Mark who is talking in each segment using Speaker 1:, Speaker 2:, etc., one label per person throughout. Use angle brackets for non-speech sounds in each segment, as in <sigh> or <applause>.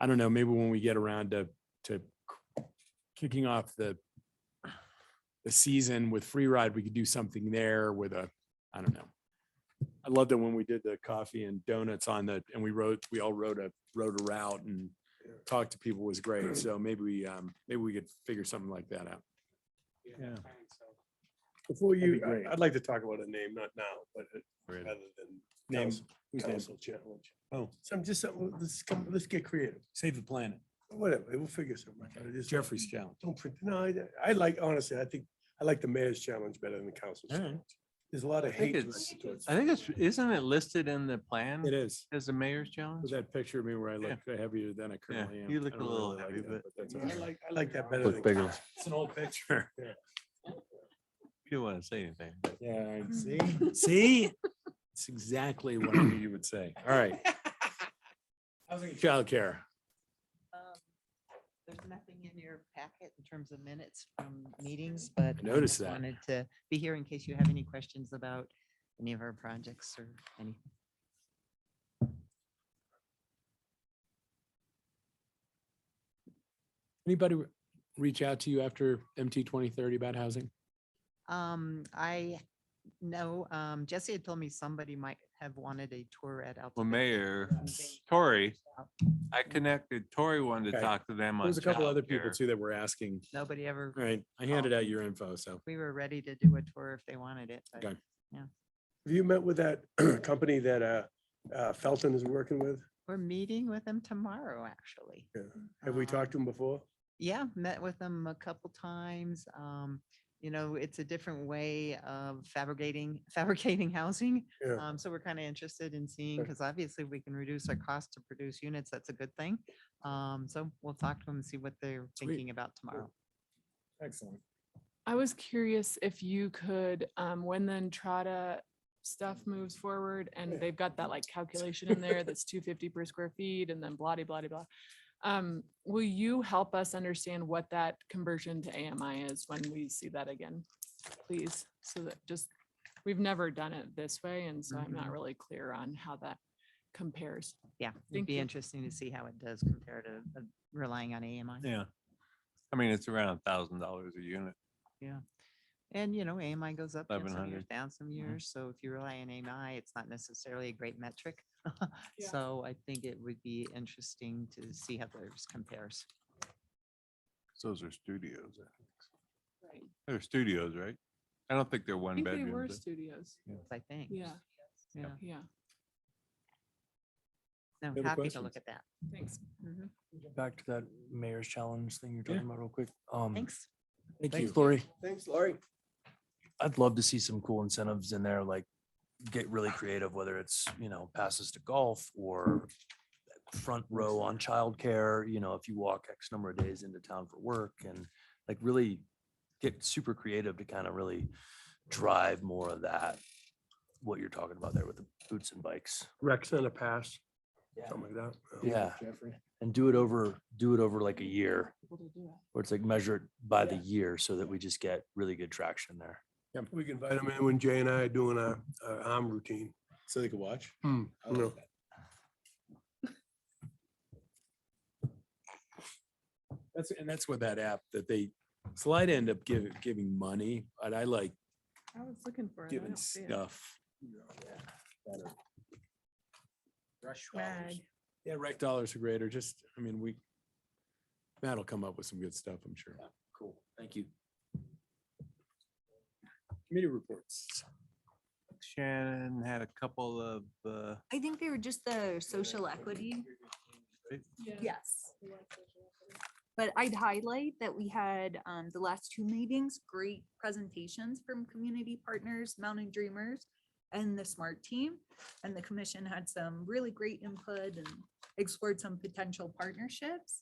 Speaker 1: I don't know, maybe when we get around to, to kicking off the the season with free ride, we could do something there with a, I don't know. I love that when we did the coffee and donuts on the, and we wrote, we all wrote a, wrote a route and talked to people was great. So maybe we, um, maybe we could figure something like that out.
Speaker 2: Yeah.
Speaker 3: Before
Speaker 2: That'd be
Speaker 3: you, I-
Speaker 2: great.
Speaker 3: I'd like to talk about a name, not now, but uh, rather than name,
Speaker 2: Council- council
Speaker 3: council challenge.
Speaker 2: Oh.
Speaker 3: Some, just, something- let's come, let's get creative,
Speaker 2: Save the planet.
Speaker 3: whatever, we'll figure something. out. I just-
Speaker 2: Jeffrey's challenge.
Speaker 3: Don't print, no, I, I like, honestly, I think, I like the mayor's challenge better than the council's
Speaker 4: All right.
Speaker 3: challenge. There's a lot of
Speaker 4: I think
Speaker 3: hate.
Speaker 4: it's-
Speaker 3: directed towards-
Speaker 4: I think it's, isn't it listed in the plan
Speaker 1: It is.
Speaker 4: as the mayor's challenge?
Speaker 1: With that picture of me where I
Speaker 4: Yeah.
Speaker 1: look heavier than I currently am.
Speaker 4: you
Speaker 1: I
Speaker 4: look a
Speaker 1: don't really
Speaker 4: little
Speaker 1: like
Speaker 4: heavy,
Speaker 1: that,
Speaker 4: but-
Speaker 1: that's all
Speaker 3: I
Speaker 1: right.
Speaker 3: like, I like that better than.
Speaker 5: Look bigger.
Speaker 1: It's an old picture.
Speaker 4: You don't want to say anything. but-
Speaker 1: Yeah, I <laughs> see, see? It's exactly what I knew you would say. All
Speaker 6: <laughs>
Speaker 1: right. Housing and childcare.
Speaker 7: Um, There's nothing in your packet in terms of minutes from meetings, but.
Speaker 1: noticed
Speaker 7: just
Speaker 1: that.
Speaker 7: Wanted to be here in case you have any questions about any of our projects or any.
Speaker 1: Anybody re- reach out to you after MT twenty thirty about housing?
Speaker 7: Um, I know, um, Jesse had told me somebody might have wanted a tour at Alta.
Speaker 4: Well,
Speaker 7: Vista.
Speaker 4: Mayor,
Speaker 7: Something.
Speaker 4: Tori, I connected, Tori wanted to
Speaker 1: Okay.
Speaker 4: talk to them on.
Speaker 1: There's a couple other people
Speaker 4: childcare.
Speaker 1: too that were asking.
Speaker 7: Nobody ever,
Speaker 1: All right, I handed out your info, so.
Speaker 7: we were ready to do a tour if they wanted it, but
Speaker 1: Okay.
Speaker 3: Have you met with that <clears throat> company that, uh, uh, Felton is working with?
Speaker 7: we're meeting with them tomorrow, actually.
Speaker 3: Yeah. Have we
Speaker 7: Um,
Speaker 3: talked to him before?
Speaker 7: Yeah, met with them a couple times. Um, you know, it's a different way of fabricating, <laughs> fabricating housing.
Speaker 3: Yeah.
Speaker 7: Um, so we're kind of interested in seeing,
Speaker 3: Okay.
Speaker 7: because obviously we can reduce our cost to produce units. That's a good thing. Um, so we'll talk to them and see what they're
Speaker 1: Sweet.
Speaker 7: thinking about tomorrow.
Speaker 1: Excellent.
Speaker 6: I was curious if you could, um, when the Entrada stuff moves forward and they've got that like calculation in there that's two fifty per square feet and then blah, de blah, de blah. Um, will you help us understand what that conversion to AMI is when we see that again? Please, so that just, we've never done it this way, and so I'm not
Speaker 7: Mhm.
Speaker 6: really clear on how that compares.
Speaker 7: Yeah, it'd
Speaker 6: Thank
Speaker 7: be
Speaker 6: you.
Speaker 7: interesting to see how it does compared to uh, relying on AMI.
Speaker 4: Yeah. I mean, it's around a thousand dollars a unit.
Speaker 7: And, you know, AMI goes up and some
Speaker 4: 1100.
Speaker 7: years, down some
Speaker 1: Mm-hmm.
Speaker 7: years. So if you rely on AMI, it's not necessarily a great metric. <laughs>
Speaker 6: Yeah.
Speaker 7: So I think it would be interesting to see how theirs compares.
Speaker 4: 'cause Those are studios. I think. They're studios, right? I don't think they're
Speaker 6: I
Speaker 4: one
Speaker 6: think they were
Speaker 4: bedrooms.
Speaker 6: studios,
Speaker 7: I think.
Speaker 6: Yeah.
Speaker 7: Yeah,
Speaker 6: yeah,
Speaker 7: no,
Speaker 1: Any other
Speaker 7: happy to
Speaker 1: questions?
Speaker 7: look at that.
Speaker 6: thanks.
Speaker 5: Back to that mayor's challenge thing you're
Speaker 1: Yeah.
Speaker 5: talking about real quick.
Speaker 1: Mm.
Speaker 5: Um,
Speaker 7: Thanks.
Speaker 1: Thank
Speaker 5: thanks,
Speaker 1: you.
Speaker 5: Lori.
Speaker 3: Thanks, Laurie.
Speaker 5: I'd love to see some cool incentives in there, like get really creative, whether it's, you know, passes to golf or front row on childcare, you know, if you walk X number of days into town for work and like really get super creative to kind of really drive more of that, what you're talking about there with the boots and bikes.
Speaker 3: Rec Center Pass,
Speaker 5: Yeah.
Speaker 3: something like that.
Speaker 5: Yeah. And do it over, do it over like a year.
Speaker 6: People to do it.
Speaker 5: Or it's like measured by the year so that we just get really good traction there.
Speaker 3: We can invite him in when Jay and I are doing our, our arm routine.
Speaker 1: So they could watch? I like
Speaker 3: No.
Speaker 1: That's, and that's what that app that they, Slide end up giving, giving money, but I like
Speaker 6: I was looking for it. I
Speaker 1: giving
Speaker 6: don't see it.
Speaker 1: stuff. Better.
Speaker 6: Swag.
Speaker 1: Yeah, rec dollars are great, or just, I mean, we, Matt'll come up with some good stuff, I'm sure.
Speaker 5: Cool. Thank you.
Speaker 1: Committee reports.
Speaker 4: Shannon had a couple of, uh,
Speaker 8: I think they were just the social equity. Yes. But I'd highlight that we had um the last two meetings, great presentations from community partners, Mountain Dreamers and the SMART team. And the commission had some really great input and explored some potential partnerships.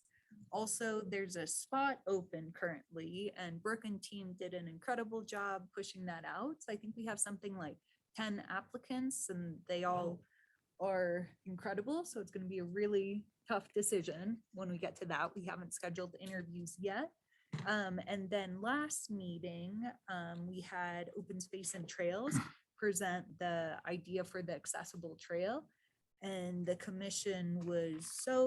Speaker 8: Also, there's a spot open currently and Brooke and team did an incredible job pushing that out. So I think we have something like ten applicants and they all are incredible. So it's going to be a really tough decision when we get to that. We haven't scheduled interviews yet. Um, and then last meeting, um, we had Open Space and Trails present the idea for the accessible trail. And the commission was so